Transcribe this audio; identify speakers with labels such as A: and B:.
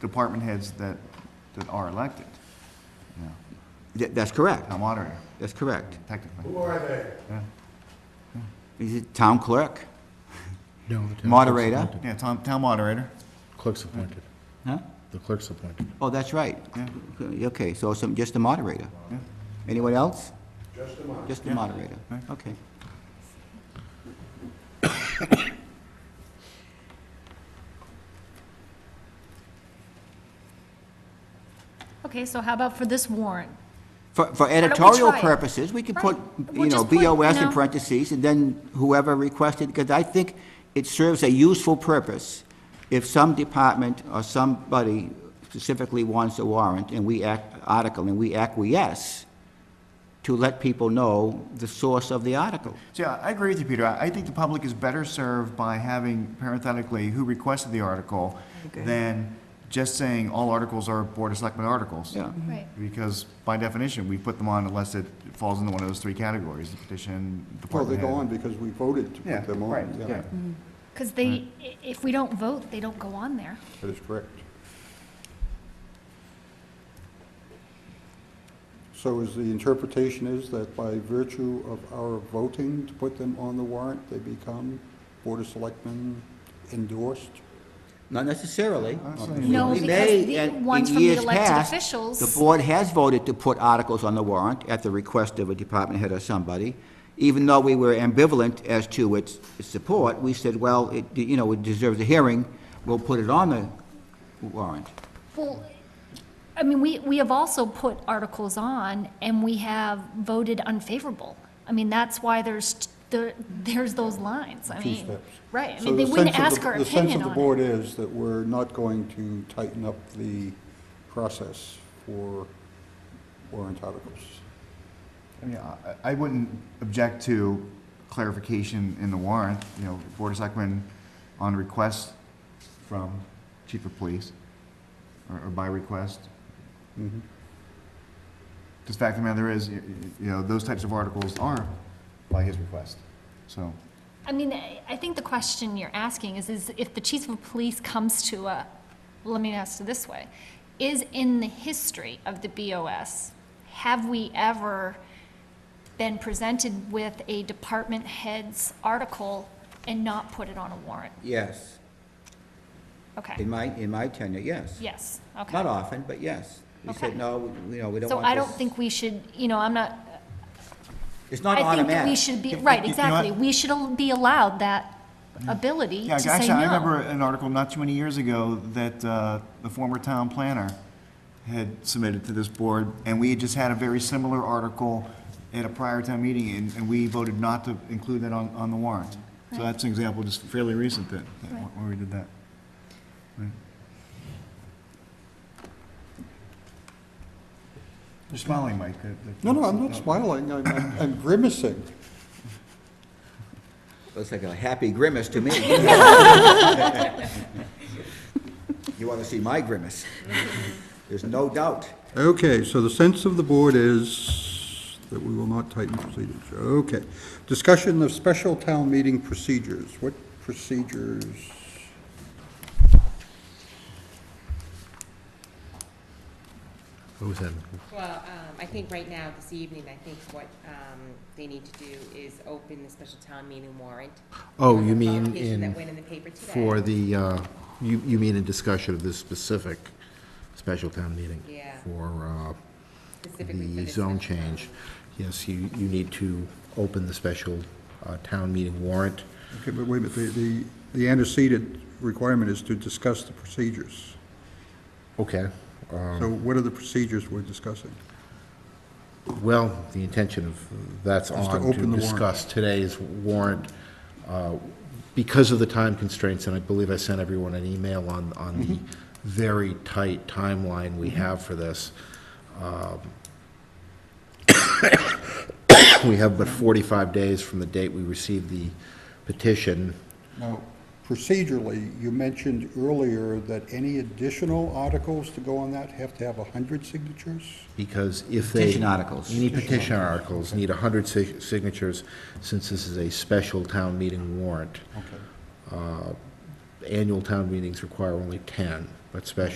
A: department heads that, that are elected, you know,
B: Th- That's correct.
A: town moderator,
B: That's correct.
A: technically.
C: Who are they?
A: Yeah,
B: He's a town clerk,
D: No, the town clerk's
B: moderator.
D: appointed.
A: Yeah, town, town moderator,
D: Clerk's appointed.
B: Huh?
D: The clerk's appointed.
B: Oh, that's right.
A: Yeah.
B: Okay, so some, just the moderator.
A: yeah.
B: Anyone else?
C: Just a moment.
B: Just the moderator.
A: Right.
B: Okay.
E: Okay, so how about for this warrant?
B: For, for
E: we
B: editorial
E: try it?
B: purposes, we could put,
E: Right. We'll
B: you know,
E: just put, you
B: BOS in
E: know.
B: parentheses, and then whoever requested, because I think it serves a useful purpose. If some department or somebody specifically wants a warrant, and we act, article, and we acquiesce, to let people know the source of the article.
A: So, yeah, I agree with you, Peter. I, I think the public is better served by having parenthetically who requested the article than just saying all articles are Board of Selectmen articles.
B: Yeah.
E: Right.
A: Because by definition, we put them on unless it falls into one of those three categories, the petition,
F: Well, they
A: department
F: go on
A: head.
F: because we voted to
A: Yeah,
F: put them
A: right,
F: on.
A: yeah.
E: Because they, i- if we don't vote, they don't go on there.
F: That is correct. So is the interpretation is that by virtue of our voting to put them on the warrant, they become Board of Selectmen endorsed?
B: Not necessarily. Um,
E: No,
B: We
E: because
B: may,
E: the
B: and
E: ones
B: in
E: from the
B: years
E: elected
B: past,
E: officials-
B: The board has voted to put articles on the warrant at the request of a department head or somebody. Even though we were ambivalent as to its its support, we said, well, it, you know, it deserves a hearing, we'll put it on the warrant.
E: Well, I mean, we, we have also put articles on and we have voted unfavorable. I mean, that's why there's, t- there, there's those lines. I
F: Two
E: mean,
F: steps.
E: right, I
F: So
E: mean, they
F: the
E: wouldn't
F: sense of
E: ask
F: the-
E: our
F: The sense
E: opinion
F: of the
E: on it.
F: board is that we're not going to tighten up the process for warrant articles.
A: I mean, I- I wouldn't object to clarification in the warrant, you know, Board of Selectmen on request from Chief of Police, or or by request. Just fact of the matter is, y- y- you know, those types of articles are by his request, so.
E: I mean, I, I think the question you're asking is, is if the chief of police comes to a, well, let me ask it this way. Is in the history of the BOS, have we ever been presented with a department head's article and not put it on a warrant?
B: Yes,
E: Okay,
B: in my, in my tenure, yes.
E: yes, okay.
B: Not often, but yes. We said,
E: Okay.
B: no, we- you know, we don't
E: So
B: want
E: I don't
B: this-
E: think we should, you know, I'm not,
B: It's not
E: I
B: automatic.
E: think we should be,
A: You- you
E: right,
A: know
E: exactly.
A: what?
E: We should al- be allowed that ability
A: Yeah,
E: to say
A: actually, I remember
E: no.
A: an article not too many years ago that uh, the former town planner had submitted to this board, and we had just had a very similar article at a prior town meeting, and, and we voted not to include that on, on the warrant. So that's an example, just fairly recent that, that
E: Right.
A: where we did that. You're smiling, Mike. That- that-
F: No, no, I'm not smiling, I'm- I'm I'm grimacing.
B: Looks like a happy grimace to me. You want to see my grimace? There's no doubt.
F: Okay, so the sense of the board is that we will not tighten procedures. Okay. Discussion of special town meeting procedures. What procedures?
D: What was that?
G: Well, um, I think right now, this evening, I think what um, they need to do is open the special town meeting warrant.
D: Oh, you mean
G: Publication that went in
D: in,
G: the paper today.
D: for the, uh, you, you mean in discussion of this specific special town meeting?
G: Yeah.
D: For, uh,
G: Specifically for
D: the
G: this
D: zone
G: special town.
D: change. Yes, you, you need to open the special uh, town meeting warrant.
F: Okay, but wait a minute, the- the, the antecedent requirement is to discuss the procedures.
D: Okay. uh,
F: So what are the procedures we're discussing?
D: Well, the intention of, that's
F: Just to
D: on
F: open the
D: to
F: warrant.
D: discuss today's warrant. uh, Because of the time constraints, and I believe I sent everyone an email on, on
F: Mm-hmm.
D: the very tight timeline we have for this. um, We have but 45 days from the date we received the petition.
F: Now, procedurally, you mentioned earlier that any additional articles to go on that have to have 100 signatures?
D: because if they...
B: Petition articles.
D: You need petition articles, need 100 sig- signatures, since this is a special town meeting warrant.
F: Okay.
D: Annual town meetings require only 10, but special